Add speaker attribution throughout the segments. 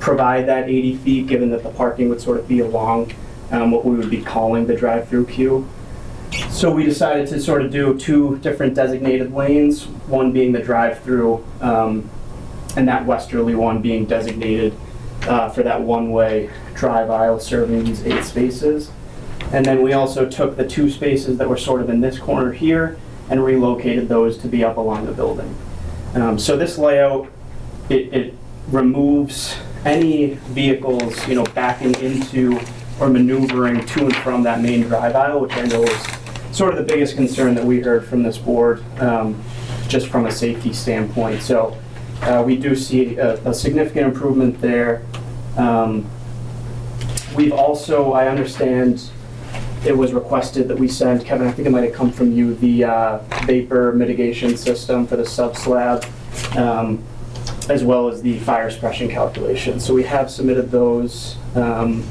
Speaker 1: provide that 80 feet, given that the parking would sort of be along um, what we would be calling the drive-through queue. So we decided to sort of do two different designated lanes, one being the drive-through, um, and that westerly one being designated uh, for that one-way drive aisle serving these eight spaces. And then we also took the two spaces that were sort of in this corner here and relocated those to be up along the building. Um, So this layout, it, it removes any vehicles, you know, backing into or maneuvering to and from that main drive aisle, which I know is sort of the biggest concern that we heard from this board, um, just from a safety standpoint. So uh, we do see a a significant improvement there. Um, We've also, I understand, it was requested that we send, Kevin, I think it might have come from you, the uh, vapor mitigation system for the sub-slab, um, as well as the fire suppression calculations. So we have submitted those um,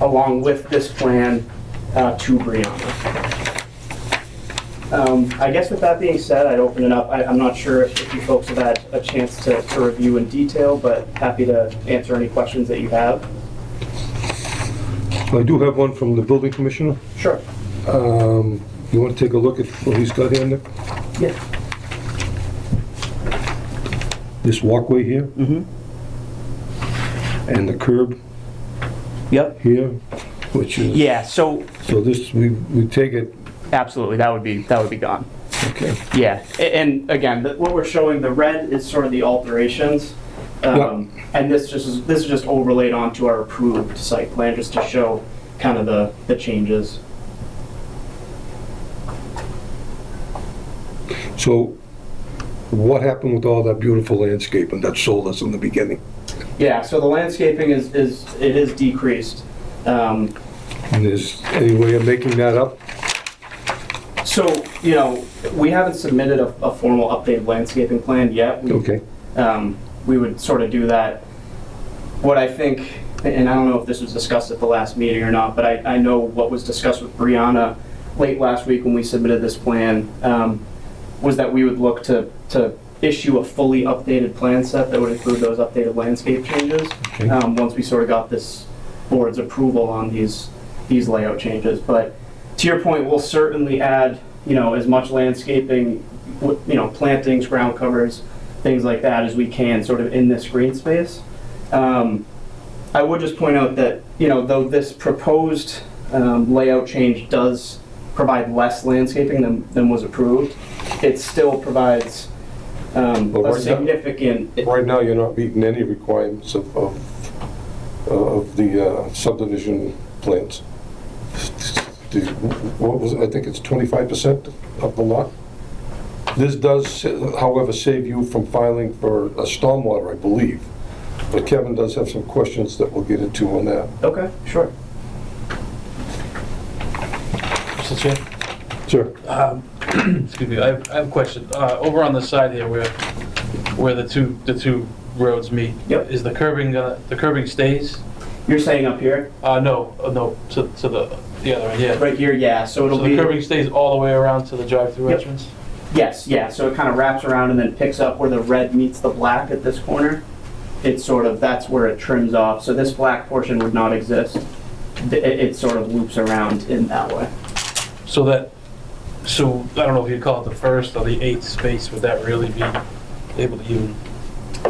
Speaker 1: along with this plan uh, to Brianna. Um, I guess with that being said, I'd open it up. I- I'm not sure if if you folks have had a chance to to review in detail, but happy to answer any questions that you have.
Speaker 2: I do have one from the building commissioner.
Speaker 1: Sure.
Speaker 2: Um, You want to take a look at what he's got here, Nick?
Speaker 1: Yeah.
Speaker 2: This walkway here
Speaker 1: Mm-hmm.
Speaker 2: and the curb
Speaker 1: Yep.
Speaker 2: here, which is...
Speaker 1: Yeah, so
Speaker 2: So this, we, we take it,
Speaker 1: Absolutely, that would be, that would be gone.
Speaker 2: okay.
Speaker 1: Yeah, a- and again, the- what we're showing, the red is sort of the alterations. Um, And this just, is- this is just overlaid onto our approved site plan, just to show kind of the, the changes.
Speaker 2: So what happened with all that beautiful landscaping that sold us in the beginning?
Speaker 1: Yeah, so the landscaping is, is, it is decreased. Um,
Speaker 2: And is any way of making that up?
Speaker 1: So, you know, we haven't submitted a, a formal updated landscaping plan yet. We-
Speaker 2: Okay,
Speaker 1: um, we would sort of do that. What I think, and I don't know if this was discussed at the last meeting or not, but I, I know what was discussed with Brianna late last week when we submitted this plan, um, was that we would look to, to issue a fully updated plan set that would include those updated landscape changes,
Speaker 2: Okay.
Speaker 1: um, once we sort of got this board's approval on these, these layout changes. But to your point, we'll certainly add, you know, as much landscaping, w- you know, plantings, ground covers, things like that as we can, sort of in this green space. Um, I would just point out that, you know, though this proposed um, layout change does provide less landscaping than, than was approved, it still provides um,
Speaker 2: But
Speaker 1: a
Speaker 2: where's that-
Speaker 1: significant,
Speaker 2: right now you're not meeting any requirements of, of, of the uh, subdivision plans. The- What was, it? I think it's twenty-five percent of the lot. This does, however, save you from filing for a stormwater, I believe. But Kevin does have some questions that we'll get into on that.
Speaker 1: okay, sure.
Speaker 3: Mr. Chair?
Speaker 2: Sure.
Speaker 3: Excuse me, I have I have a question. Uh, Over on the side here where, where the two, the two roads meet.
Speaker 1: Yep.
Speaker 3: Is the curbing, gonna- the curbing stays?
Speaker 1: You're saying up here,
Speaker 3: Uh, no, uh, no, to, to the, the other end, yeah.
Speaker 1: right here, yeah, so
Speaker 3: So
Speaker 1: it'll
Speaker 3: the
Speaker 1: be,
Speaker 3: curbing stays all the way around to the drive-through
Speaker 1: Yep.
Speaker 3: entrance?
Speaker 1: yes, yeah, so it kind of wraps around and then picks up where the red meets the black at this corner. It's sort of, that's where it trims off, so this black portion would not exist. Th- It, it sort of loops around in that way.
Speaker 3: So that, so I don't know if you'd call it the first or the eighth space, would that really be able to even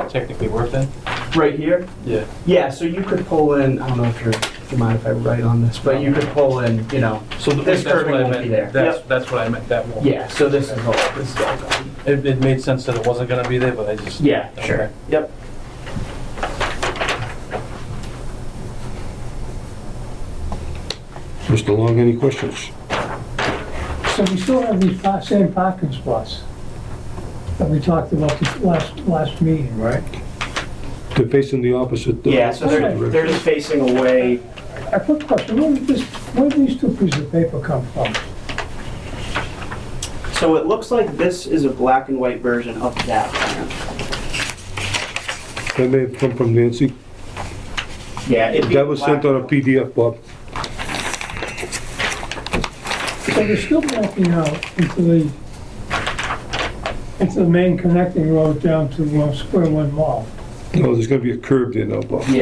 Speaker 3: technically work then?
Speaker 1: Right here?
Speaker 3: Yeah.
Speaker 1: Yeah, so you could pull in, I don't know if you're, if you mind if I write on this, but you could pull in, you know,
Speaker 3: So th-
Speaker 1: This
Speaker 3: that's what
Speaker 1: curbing
Speaker 3: I
Speaker 1: won't
Speaker 3: meant.
Speaker 1: be there.
Speaker 3: That's, that's what I meant, that won't.
Speaker 1: yeah, so this is all, this is all gone.
Speaker 3: It, it made sense that it wasn't gonna be there, but I just.
Speaker 1: Yeah,
Speaker 3: Okay.
Speaker 1: sure, yep.
Speaker 2: Mr. Long, any questions?
Speaker 4: So we still have these pa- same parking spots that we talked about the last, last meeting, right?
Speaker 2: They're facing the opposite. uh,
Speaker 1: Yeah, so they're,
Speaker 2: direction.
Speaker 1: they're just facing away,
Speaker 4: A quick question, where did this, where did these two pieces of paper come from?
Speaker 1: so it looks like this is a black and white version of that plan.
Speaker 2: That may have come from Nancy.
Speaker 1: Yeah. it'd be
Speaker 2: That was sent
Speaker 1: black-
Speaker 2: on a PDF, Bob.
Speaker 4: So they're still backing out into the, into the main connecting road down to uh, Square One Mall.
Speaker 2: No, there's gonna be a curb there now, Bob.